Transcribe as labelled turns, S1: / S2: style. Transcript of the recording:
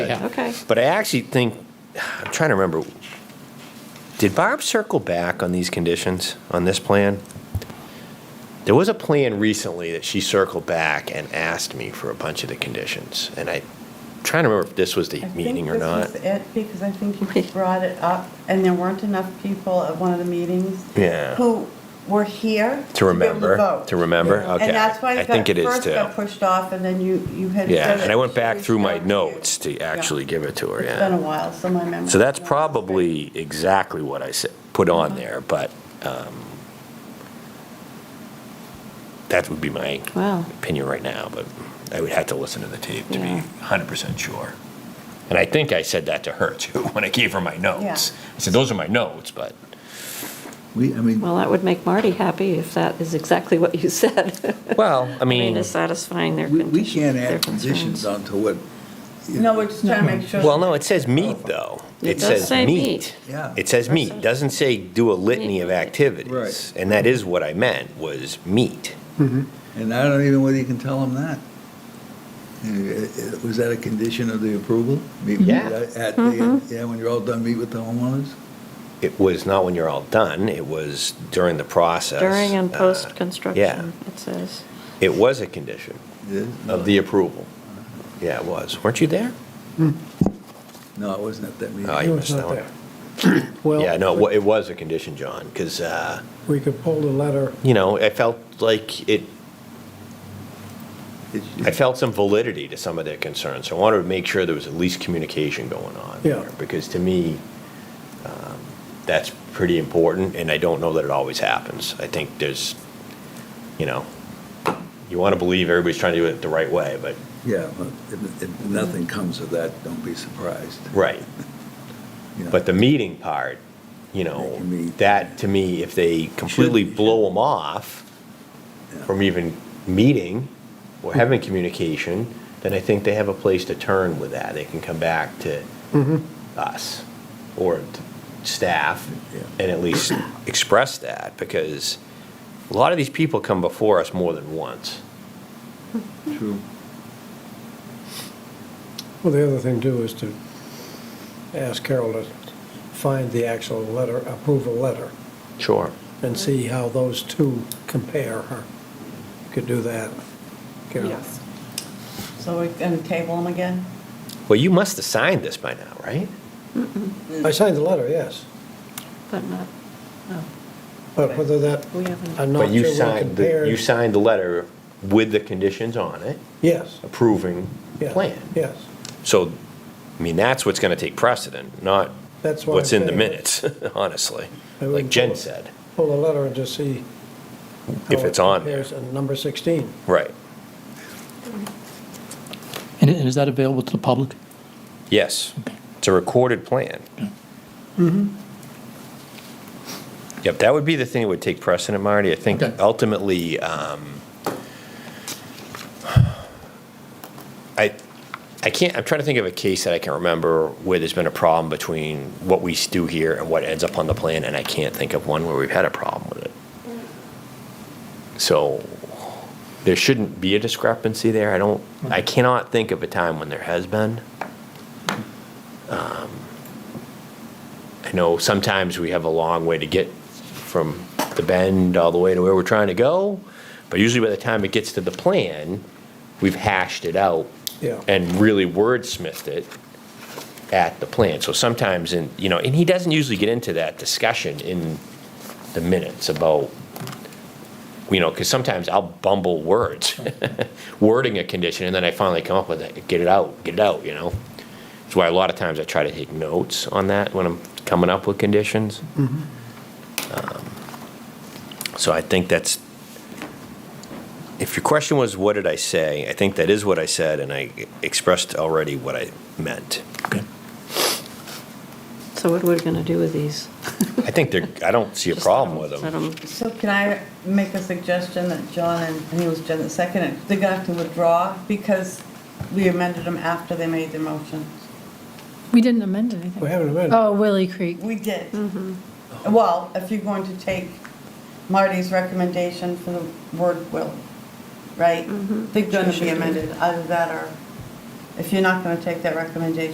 S1: Yeah.
S2: Okay.
S3: But I actually think, I'm trying to remember, did Barb circle back on these conditions, on this plan? There was a plan recently that she circled back and asked me for a bunch of the conditions, and I, trying to remember if this was the
S4: I think
S3: meeting or
S4: this
S3: not.
S4: was it, because I think you brought it up, and there weren't enough people at one of the meetings.
S3: Yeah.
S4: Who were here.
S3: To
S4: be able
S3: remember,
S4: vote.
S3: to remember,
S4: Yeah.
S3: okay.
S4: And that's why
S3: I
S4: it
S3: think it
S4: got,
S3: is
S4: first
S3: too.
S4: got pushed off, and then you, you had.
S3: Yeah,
S4: said
S3: and
S4: it
S3: I went back
S4: should
S3: through my
S4: go to you.
S3: notes to
S4: Yeah.
S3: actually give it to her,
S4: It's
S3: yeah.
S4: been a while, so my memory.
S3: So that's probably exactly what I said, put
S4: Uh-huh.
S3: on there, but um, that would be my
S2: Wow.
S3: opinion right now, but I would have to listen to the tape to
S2: Yeah.
S3: be 100% sure. And I think I said that to her too, when I gave her my notes. I said, those are my notes, but
S5: We, I mean,
S2: Well, that would make Marty happy if that is exactly what you said.
S3: Well, I
S2: I mean,
S3: mean-
S2: is satisfying their
S5: we, we
S2: conditions.
S5: can't add conditions onto what.
S4: No, we're just trying to make sure.
S3: well, no, it says meat though.
S2: It does
S3: says
S2: say meat.
S5: Yeah.
S3: It says meat, doesn't say do a litany of activities.
S5: Right.
S3: And that is what I meant, was meat.
S5: And I don't even know whether you can tell them that. Uh, uh, Was that a condition of the approval? Meet with-
S3: Yeah.
S5: At the, yeah, when you're all done, meet with the homeowners?
S3: It was not when you're all done, it was during the process.
S2: During and
S3: Uh,
S2: post-construction, it says.
S3: Yeah, it was a condition
S5: It is?
S3: of the approval. Yeah, it was. Weren't you there?
S5: No, it wasn't at that meeting.
S3: Oh,
S6: It
S3: you
S6: was
S3: missed that
S6: not
S3: one.
S6: there.
S3: Yeah, no, it wa-
S6: Well,
S3: it was a condition, John, because,
S6: we could pull the letter,
S3: you know, I felt like it,
S5: It-
S3: I felt some validity to some of their concerns. So I wanted to make sure there was at least communication going on.
S6: Yeah.
S3: there, Because to me, um, that's pretty important, and I don't know that it always happens. I think there's, you know, you want to believe everybody's trying to do it the right way, but,
S5: Yeah, but if, if nothing comes of that, don't be surprised.
S3: right.
S5: You know.
S3: But the meeting part, you
S5: They
S3: know,
S5: can meet.
S3: that to me, if they completely
S5: Should-
S3: blow them off
S5: Yeah.
S3: from even meeting or having communication, then I think they have a place to turn with that. They can come back to
S6: Mm-hmm.
S3: us or to staff
S5: Yeah.
S3: and at least express that because a lot of these people come before us more than once.
S5: True.
S6: well, the other thing too is to ask Carol to find the actual letter, approval letter,
S3: Sure.
S6: and see how those two compare. Could do that. Carol.
S2: Yes.
S4: So we're gonna table them again?
S3: Well, you must have signed this by now, right?
S6: I signed the letter, yes,
S2: But not, no.
S6: but whether that,
S2: We haven't-
S6: I'm
S3: But
S6: not
S3: you
S6: sure what
S3: signed, the- you
S6: compared.
S3: signed the letter with the conditions on it.
S6: Yes,
S3: approving the
S6: yeah,
S3: plan.
S6: yes.
S3: So, I mean, that's what's going to take precedent, not
S6: That's why.
S3: what's in
S6: I'm
S3: the
S6: saying,
S3: minutes, honestly,
S6: I
S3: like
S6: wouldn't
S3: Jen
S6: vote.
S3: said.
S6: Pull the letter and just see. how
S3: If
S6: it
S3: it's on there.
S6: compares in Number 16.
S3: Right.
S1: And and is that available to the public?
S3: Yes. It's a recorded plan. Yep, that would be the thing that would take precedent, Marty. I think
S1: Okay.
S3: ultimately, um, I, I can't, I'm trying to think of a case that I can remember where there's been a problem between what we do here and what ends up on the plan, and I can't think of one where we've had a problem with it. So there shouldn't be a discrepancy there. I don't, I cannot think of a time when there has been. Um, I know sometimes we have a long way to get from the bend all the way to where we're trying to go, but usually by the time it gets to the plan, we've hashed it out
S6: Yeah.
S3: and really wordsmithed it at the plan. So sometimes, in you know, and he doesn't usually get into that discussion in the minutes about you know, because sometimes I'll bumble words, wording a condition, and then I finally come up with it, get it out, get it out, you know? That's why a lot of times I try to take notes on that when I'm coming up with conditions. Um, So I think that's, if your question was, what did I say? I think that is what I said, and I expressed already what I meant.
S1: Okay.
S2: So what are we going to do with these?
S3: I think there, I don't see a
S2: Just
S3: problem with
S2: let
S3: them.
S4: So can I make a suggestion that John and, and it was Jen that seconded, they're gonna have to withdraw because we amended them after they made their motion.
S7: We didn't amend anything.
S6: We haven't amended.
S7: Oh, Willie Creek.
S4: We did. Well, if you're going to take Marty's recommendation for the word will, right? They're gonna be amended, either that or, if you're not gonna take that recommendation,